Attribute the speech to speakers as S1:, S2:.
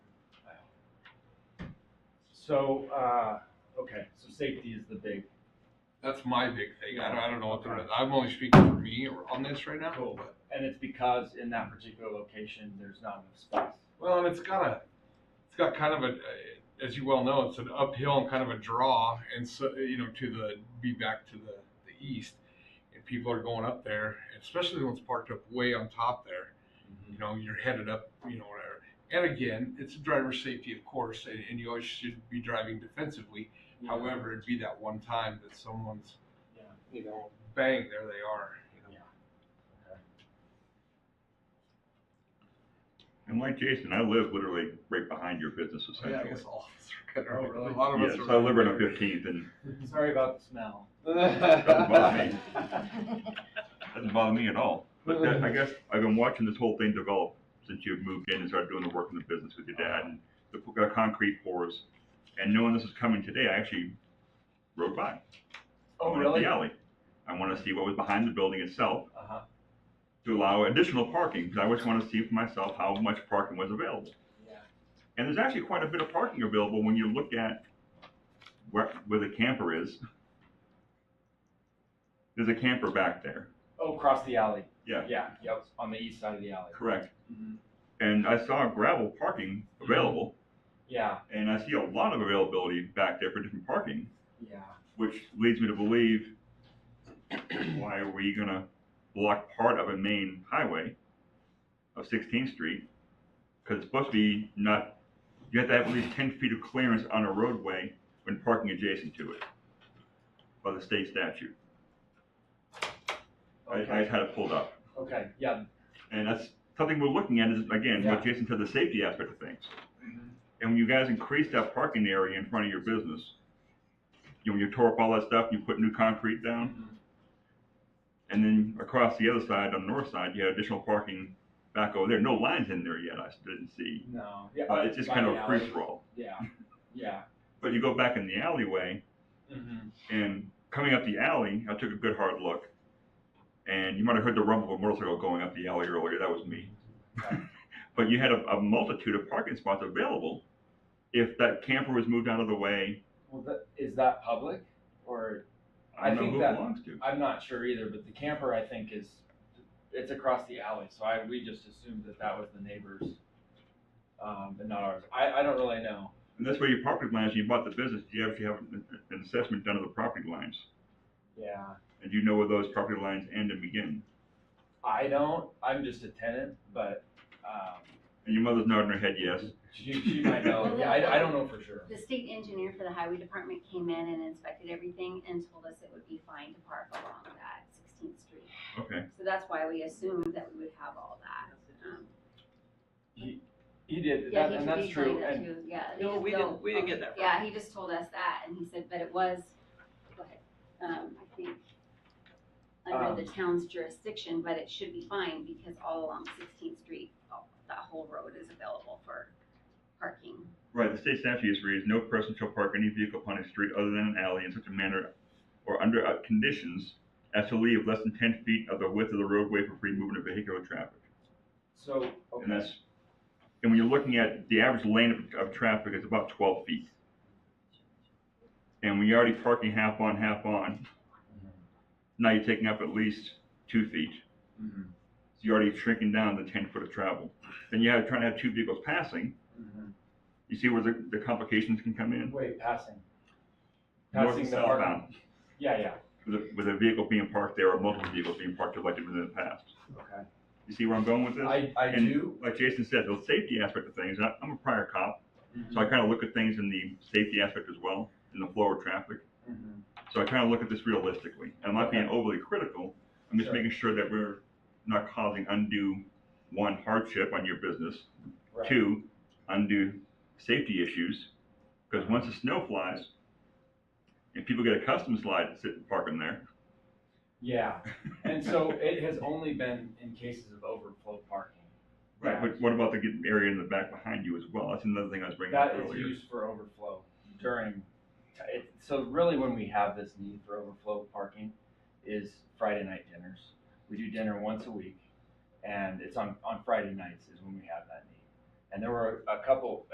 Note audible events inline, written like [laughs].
S1: So, uh, okay, so safety is the big,
S2: That's my big thing. I don't, I don't know what the rest, I'm only speaking for me or on this right now.
S1: Cool.
S2: but-
S1: and it's because in that particular location, there's not enough space.
S2: Well, and it's got a, it's got kind of a, uh, as you well know, it's an uphill and kind of a draw. And so, you know, to the, be back to the, the east. And people are going up there, especially the ones parked up way on top there. you know, you're headed up, you know, whatever. And again, it's driver safety, of course, and, and you always should be driving defensively.
S3: Mm-hmm.
S2: However, it'd be that one time that someone's,
S1: Yeah.
S2: you know, bang, there they are. You know?
S3: And like Jason, I live literally right behind your business
S2: yeah, I
S3: essentially.
S2: guess all of us are
S1: Oh,
S2: kind of,
S1: really?
S2: [laughs] a lot of
S3: Yes,
S2: us are.
S3: I live right on Fifteenth and
S1: Sorry about the
S3: [laughs]
S1: smell.
S3: Doesn't bother me. Doesn't bother me at all. But that, I guess I've been watching this whole thing develop since you moved in and started doing the work in the business with your dad and the p- uh, concrete pours. And knowing this is coming today, I actually rode by. I
S1: Oh,
S3: went up
S1: really? Uh-huh.
S3: The
S1: Uh
S3: alley. I want to see what was behind the building itself
S1: huh.
S3: to allow additional parking because I always want to see for myself how much parking was available.
S1: Yeah.
S3: And there's actually quite a bit of parking available when you look at where, where the camper is. There's a camper back there.
S1: Oh, across the alley.
S3: Yeah. Mm-hmm.
S1: Yeah, yep, on the east side of the alley.
S3: Correct.
S1: Mhm.
S3: And I saw gravel parking available,
S1: Yeah,
S3: and I see a lot of availability back there for different parking,
S1: yeah.
S3: which leads me to believe, why are we gonna block part of a main highway of Sixteenth Street? Cause it's supposed to be not, you have to have at least ten feet of clearance on a roadway when parking adjacent to it by the state statute. I, I
S1: Okay,
S3: just had it pulled up.
S1: okay, yeah.
S3: And that's something we're looking at is, again, what
S1: Yeah. Mm-hmm.
S3: Jason said, the safety aspect of things. And when you guys increased that parking area in front of your business, you know, you tore up all that stuff, you put new concrete down,
S1: Mhm.
S3: and then across the other side, on the north side, you had additional parking back over there. No lines in there yet, I didn't see.
S1: No, yeah.
S3: Uh, it's just
S1: by
S3: kind of
S1: the
S3: a
S1: alley.
S3: free for all.
S1: Yeah, yeah.
S3: But you go back in the alleyway,
S1: Mhm.
S3: and coming up the alley, I took a good hard look, and you might have heard the rumble of a motorcycle going up the alley earlier. That was me. [laughs] But you had a, a multitude of parking spots available if that camper was moved out of the way.
S1: Well, that, is that public or,
S3: I
S1: I
S3: don't know
S1: think
S3: who
S1: that-
S3: it belongs to.
S1: I'm not sure either, but the camper I think is, it's across the alley, so I, we just assumed that that was the neighbors. Um, but not ours. I, I don't really know.
S3: And that's where your property lines, you bought the business, you actually have an an assessment done of the property lines.
S1: Yeah.
S3: And you know where those property lines end and begin.
S1: I don't, I'm just a tenant, but, um,
S3: And your mother's nodding her head yes.
S1: she,
S4: [laughs]
S1: she might know. Yeah, I, I don't know for sure.
S4: The state engineer for the highway department came in and inspected everything and told us it would be fine to park along that Sixteenth Street.
S3: Okay.
S4: So that's why we assumed that we would have all that. Um,
S1: He did,
S4: Yeah,
S1: that,
S4: he
S1: and
S4: should
S1: that's
S4: be saying
S1: true,
S4: that
S1: and,
S4: too, yeah. they
S5: No,
S4: just
S5: we didn't-
S4: don't-
S5: we didn't get that
S4: Yeah, he just told us that and he said, but it was, go ahead, um, I think,
S1: Um,
S4: under the town's jurisdiction, but it should be fine because all along Sixteenth Street, all- that whole road is available for parking.
S3: Right, the state statute is reads, no person shall park any vehicle upon a street other than an alley in such a manner or under uh, conditions as to leave less than ten feet of the width of the roadway for free movement of vehicular traffic.
S1: so,
S3: And
S1: okay,
S3: that's, and when you're looking at the average lane of, of traffic is about twelve feet. And when you're already parking half on, half on, now you're taking up at least two feet.
S1: Mhm.
S3: So you're already shrinking down the ten foot of travel. Then you have, trying to have two vehicles passing,
S1: Mhm.
S3: you see where the, the complications can come in?
S1: wait, passing.
S3: North
S1: Passing
S3: and
S1: the park,
S3: southbound,
S1: yeah, yeah,
S3: with a, with a vehicle being parked there or multiple vehicles being parked directly within the past.
S1: okay.
S3: You see where I'm going with this?
S1: I, I
S3: And
S1: do,
S3: Like Jason said, the safety aspect of things, I- I'm a prior cop,
S1: Mm-hmm.
S3: So I kind of look at things in the safety aspect as well, in the flow of traffic.
S1: Mhm.
S3: So I kind of look at this realistically. I'm not being overly critical. I'm just
S1: Sure.
S3: making sure that we're not causing undue, one, hardship on your business,
S1: Right.
S3: two, undue safety issues. Because once the snow flies, and people get a custom slide to sit and park in there,
S1: Yeah, and so it has only been in cases of overflow parking.
S3: right? But what about the get- area in the back behind you as well? That's another thing I was bringing up
S1: That is
S3: earlier.
S1: used for overflow during, it, so really when we have this need for overflow parking is Friday night dinners. We do dinner once a week and it's on, on Friday nights is when we have that need. And there were a couple,